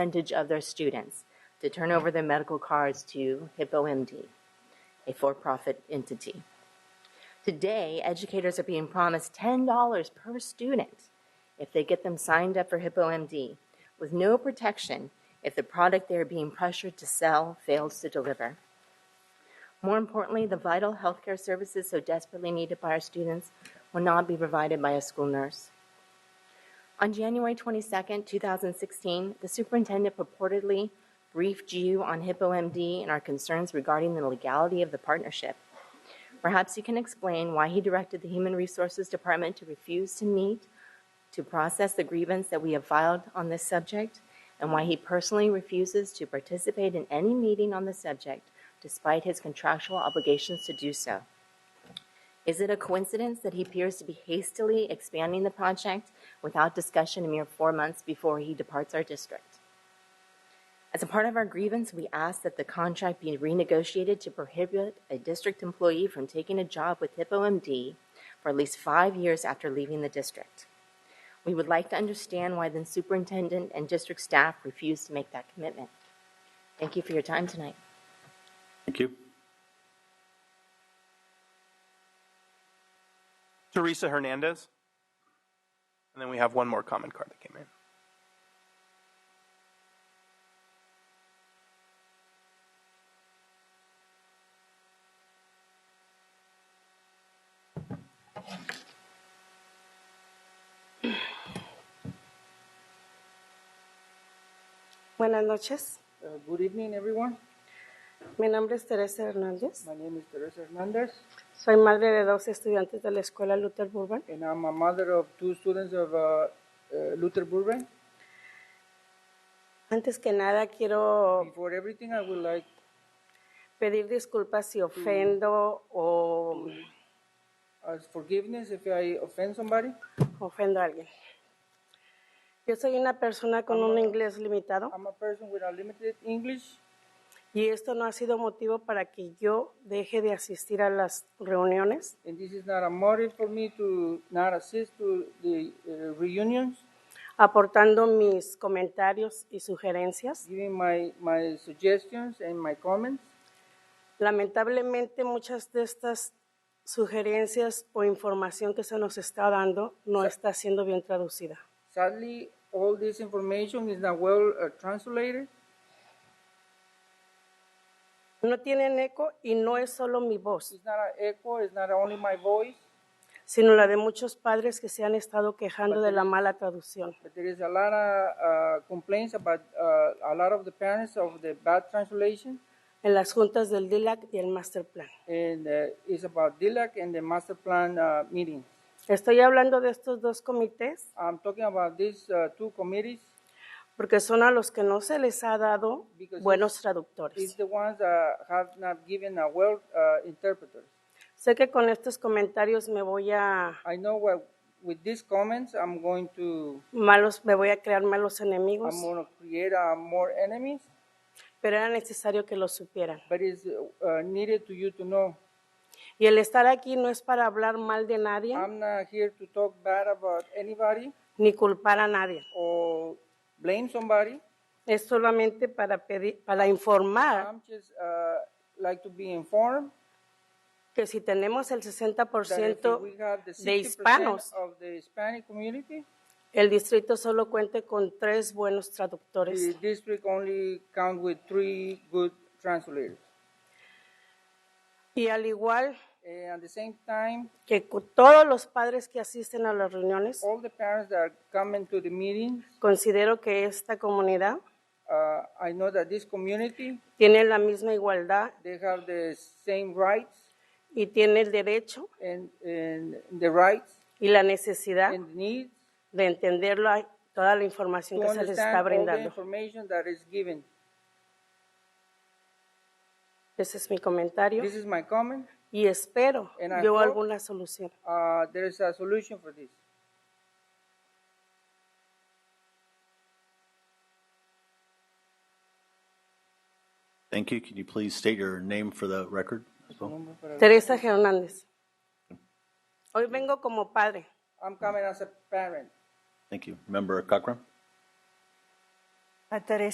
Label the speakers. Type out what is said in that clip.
Speaker 1: percentage of their students to turn over their medical cards to HippoMD, a for profit entity. Today, educators are being promised $10 per student if they get them signed up for HippoMD, with no protection if the product they are being pressured to sell fails to deliver. More importantly, the vital healthcare services so desperately needed by our students will not be provided by a school nurse. On January 22, 2016, the superintendent purportedly briefed you on HippoMD and our concerns regarding the legality of the partnership. Perhaps you can explain why he directed the Human Resources Department to refuse to meet to process the grievance that we have filed on this subject and why he personally refuses to participate in any meeting on the subject despite his contractual obligations to do so. Is it a coincidence that he appears to be hastily expanding the project without discussion a mere four months before he departs our district? As a part of our grievance, we ask that the contract be renegotiated to prohibit a district employee from taking a job with HippoMD for at least five years after leaving the district. We would like to understand why the superintendent and district staff refused to make that commitment. Thank you for your time tonight.
Speaker 2: Thank you.
Speaker 3: Teresa Hernandez. And then we have one more comment card that came in.
Speaker 4: Buenas noches.
Speaker 5: Uh, Good evening, everyone.
Speaker 4: Mi nombre es Teresa Hernández.
Speaker 5: My name is Teresa Hernandez,
Speaker 4: Soy madre de dos estudiantes de la Escuela Luther Burbank.
Speaker 5: and I'm a mother of two students of uh, uh, Luther Burbank.
Speaker 4: Antes que nada, quiero
Speaker 5: Before everything, I would like
Speaker 4: pedir disculpas si ofendo o
Speaker 5: uh, forgiveness if I offend somebody.
Speaker 4: ofendo a alguien. Yo soy una persona con un inglés limitado
Speaker 5: I'm a person with a limited English,
Speaker 4: y esto no ha sido motivo para que yo deje de asistir a las reuniones.
Speaker 5: and this is not a motive for me to not assist to the uh, reunions,
Speaker 4: aportando mis comentarios y sugerencias.
Speaker 5: giving my, my suggestions and my comments.
Speaker 4: Lamentablemente muchas de estas sugerencias o información que se nos está dando no está siendo bien traducida.
Speaker 5: Sadly, all this information is not well uh, translated.
Speaker 4: No tienen eco y no es solo mi voz,
Speaker 5: It's not an echo, it's not only my voice,
Speaker 4: sino la de muchos padres que se han estado quejando de la mala traducción.
Speaker 5: But there is a lot of uh, complaints about uh, a lot of the parents of the bad translation,
Speaker 4: en las juntas del DILAC y el Master Plan.
Speaker 5: and uh, it's about DILAC and the master plan uh, meeting.
Speaker 4: Estoy hablando de estos dos comités
Speaker 5: I'm talking about these uh, two committees.
Speaker 4: porque son a los que no se les ha dado buenos
Speaker 5: It's
Speaker 4: traductores.
Speaker 5: the ones that have not given a well uh, interpreter.
Speaker 4: Sé que con estos comentarios me voy a
Speaker 5: I know what, with these comments, I'm going to
Speaker 4: malos, me voy a crear malos enemigos,
Speaker 5: I'm going to create uh, more enemies,
Speaker 4: pero era necesario que lo supieran.
Speaker 5: but it's uh, needed to you to know.
Speaker 4: Y el estar aquí no es para hablar mal de nadie
Speaker 5: I'm not here to talk bad about anybody
Speaker 4: ni culpar a nadie.
Speaker 5: or blame somebody.
Speaker 4: Es solamente para pedir, para informar
Speaker 5: I'm just uh, like to be informed
Speaker 4: que si tenemos el
Speaker 5: that if we have the
Speaker 4: 60% de
Speaker 5: 60%
Speaker 4: hispanos,
Speaker 5: of the Hispanic community,
Speaker 4: el distrito solo cuente con tres buenos traductores.
Speaker 5: the district only count with three good translators.
Speaker 4: Y al igual
Speaker 5: And at the same time,
Speaker 4: que cu- todos los padres que asisten a las reuniones,
Speaker 5: all the parents that are coming to the meetings,
Speaker 4: considero que esta comunidad
Speaker 5: uh, I know that this community,
Speaker 4: tiene la misma igualdad
Speaker 5: they have the same rights
Speaker 4: y tiene el derecho
Speaker 5: and, and the rights
Speaker 4: y la necesidad
Speaker 5: and needs
Speaker 4: de entender la- toda la
Speaker 5: to
Speaker 4: información que se les
Speaker 5: understand
Speaker 4: está
Speaker 5: all the
Speaker 4: brindando.
Speaker 5: information that is given.
Speaker 4: Ese es mi comentario
Speaker 5: This is my comment.
Speaker 4: y espero
Speaker 5: And I
Speaker 4: yo
Speaker 5: hope-
Speaker 4: alguna solución.
Speaker 5: Uh, there is a solution for this.
Speaker 2: Thank you. Could you please state your name for the record as well?
Speaker 4: Teresa Hernández. Hoy vengo como padre.
Speaker 5: I'm coming as a parent.
Speaker 2: Thank you. Member Cochran?
Speaker 6: A Teresa